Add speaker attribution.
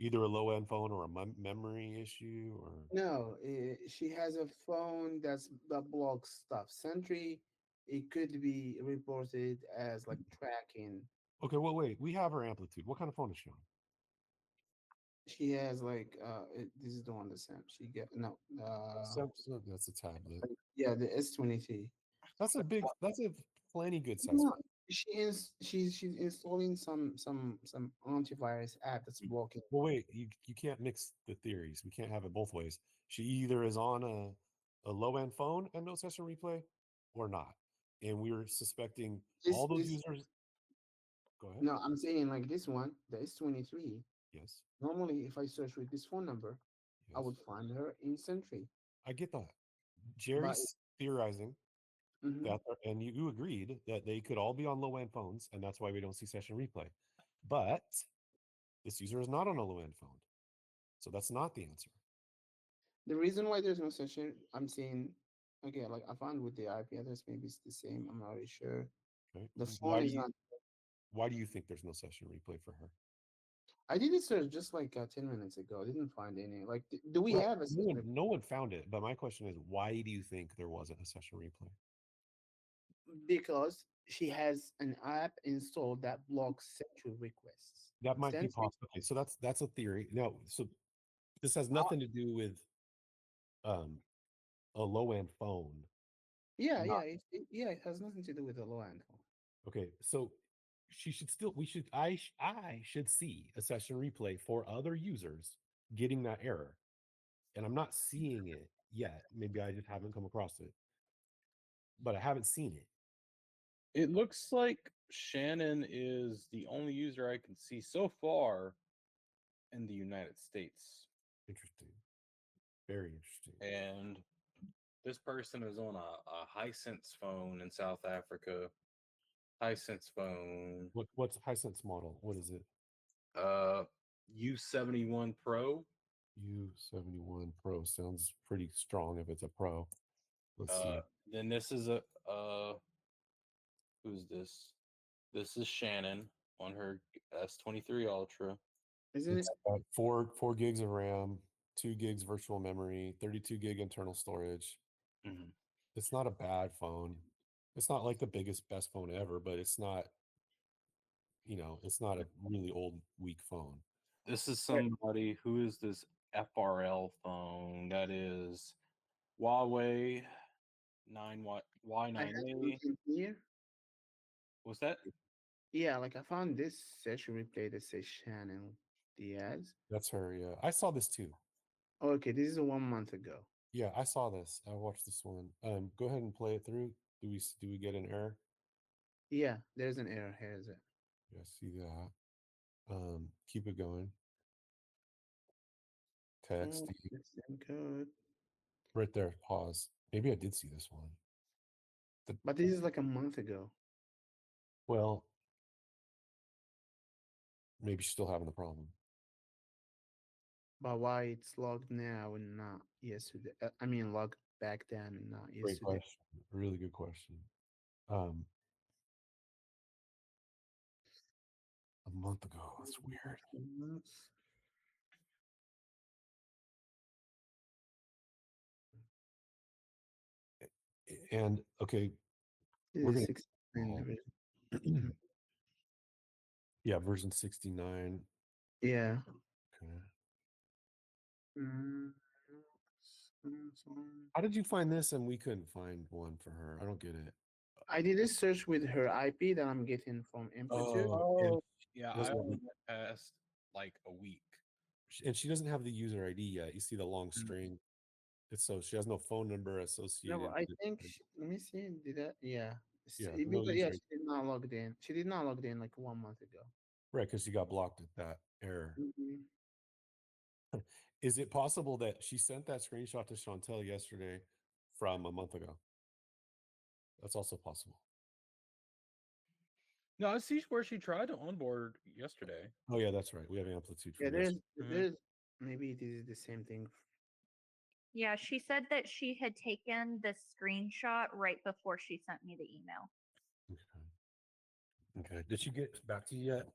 Speaker 1: either a low end phone or a mem- memory issue or
Speaker 2: No, eh, she has a phone that's that blocks stuff. Sentry, it could be reported as like tracking.
Speaker 1: okay well wait we have her amplitude what kind of phone is she on
Speaker 2: She has like uh, it- this is the one that's Sam. She get no. Uh,
Speaker 1: Samsung, that's a tablet
Speaker 2: yeah, the S twenty three.
Speaker 1: that's a big that's a plenty good size
Speaker 2: No,
Speaker 1: phone.
Speaker 2: she is she's she's installing some some some antivirus app that's
Speaker 1: Mm.
Speaker 2: blocking.
Speaker 1: well wait you, you can't mix the theories we can't have it both ways she either is on a, a low end phone and no session replay or not and we are suspecting
Speaker 2: This,
Speaker 1: all those
Speaker 2: this-
Speaker 1: users go ahead
Speaker 2: No, I'm saying like this one, the S twenty three.
Speaker 1: yes
Speaker 2: Normally, if I search with this phone number, I
Speaker 1: yes.
Speaker 2: would find her in Sentry.
Speaker 1: I get that jerry's theorizing
Speaker 2: Mhm.
Speaker 1: that are- uh, and you, you agreed that they could all be on low end phones, and that's why we don't see session replay. But this user is not on a low end phone, so that's not the answer.
Speaker 2: The reason why there's no session, I'm saying, okay, like I found with the IP address, maybe it's the same. I'm not really sure.
Speaker 1: Right?
Speaker 2: The
Speaker 1: why,
Speaker 2: phone
Speaker 1: do
Speaker 2: is
Speaker 1: you,
Speaker 2: not.
Speaker 1: why do you think there's no session replay for her?
Speaker 2: I did a search just like uh, ten minutes ago. I didn't find any. Like, d- do we
Speaker 1: Well,
Speaker 2: have a
Speaker 1: No one,
Speaker 2: session?
Speaker 1: no one found it, but my question is, why do you think there wasn't a session replay?
Speaker 2: Because she has an app installed that blocks sexual requests.
Speaker 1: That might be
Speaker 2: Sensing-
Speaker 1: possible. Okay, so that's that's a theory. No, so this has nothing to do with um a low end phone.
Speaker 2: Yeah,
Speaker 1: Not-
Speaker 2: yeah, it, it- yeah. It has nothing to do with the low end phone.
Speaker 1: Okay, so she should still. We should. I. sh- I should see a session replay for other users getting that error, and I'm not seeing it yet. Maybe I just haven't come across it, but I haven't seen it.
Speaker 3: It looks like Shannon is the only user I can see so far in the United States.
Speaker 1: Interesting. Very interesting.
Speaker 3: And this person is on a, a Hisense phone in South Africa. Hisense phone,
Speaker 1: What what's Hisense model? What is it?
Speaker 3: uh, U71 Pro.
Speaker 1: U71 Pro sounds pretty strong if it's a pro. Let's see.
Speaker 3: Uh, then this is a uh, who's this? This is Shannon on her S23 Ultra.
Speaker 2: Isn't it?
Speaker 1: It's got four four gigs of RAM, two gigs virtual memory, 32 gig internal storage. Mm-hmm.
Speaker 3: Mhm.
Speaker 1: It's not a bad phone. It's not like the biggest best phone ever, but it's not. You know, it's not a really old weak phone.
Speaker 3: This is somebody who is this FRL phone that is Huawei 9 Y
Speaker 2: I had
Speaker 3: Y9A.
Speaker 2: something here.
Speaker 3: Was that?
Speaker 2: Yeah, like I found this session replay that says Shannon Diaz.
Speaker 1: That's her. Yeah, I saw this too.
Speaker 2: Okay, this is one month ago.
Speaker 1: Yeah, I saw this. I watched this one. Um, go ahead and play it through. Do we s- do we get an error?
Speaker 2: Yeah, there's an error here. Is it?
Speaker 1: Yeah, I see that. Um, keep it going. Text
Speaker 2: Oh,
Speaker 1: you-
Speaker 2: the same code.
Speaker 1: right there. Pause. Maybe I did see this one.
Speaker 2: But this is like a month ago.
Speaker 1: Well, maybe she's still having the problem.
Speaker 2: But why it's logged now and not yesterday? uh, I mean, logged back then and not
Speaker 1: Great
Speaker 2: yesterday.
Speaker 1: question. Really good question. Um, a month ago. That's
Speaker 2: Mm-hmm.
Speaker 1: weird.
Speaker 2: Months.
Speaker 1: A- And okay,
Speaker 2: This
Speaker 1: We're
Speaker 2: is
Speaker 1: gonna-
Speaker 2: 69
Speaker 1: Oh.
Speaker 2: version.
Speaker 1: yeah, version sixty nine.
Speaker 2: Yeah.
Speaker 1: Okay.
Speaker 2: Mm, mm, mm.
Speaker 1: How did you find this? And we couldn't find one for her. I don't get it.
Speaker 2: I did a search with her IP that I'm getting from Amplitude.
Speaker 1: and
Speaker 3: Oh, yeah.
Speaker 1: that's
Speaker 3: I
Speaker 1: what we-
Speaker 3: only went past like a week.
Speaker 1: sh- and she doesn't have the user ID yet. You see the long
Speaker 3: Mm.
Speaker 1: string. It's so she has no phone number associated.
Speaker 2: Mm-hmm. No, I
Speaker 1: with
Speaker 2: think.
Speaker 1: it.
Speaker 2: She, let me see. Did that? Yeah. S-
Speaker 1: Yeah,
Speaker 2: it-
Speaker 1: no
Speaker 2: because, yeah,
Speaker 1: user
Speaker 2: she did not log in. She did not log in like one month ago.
Speaker 1: right because she got blocked at that error.
Speaker 2: Mhm.
Speaker 1: Is it possible that she sent that screenshot to Chantel yesterday from a month ago? That's also possible.
Speaker 3: No, I see where she tried to onboard yesterday.
Speaker 1: Oh yeah, that's right. We have amplitude.
Speaker 2: Yeah,
Speaker 1: from
Speaker 2: there's,
Speaker 1: yesterday.
Speaker 3: Mhm.
Speaker 2: there's maybe it is the same thing.
Speaker 4: Yeah, she said that she had taken the screenshot right before she sent me the email.
Speaker 1: Okay. Okay. Did she get back to you yet?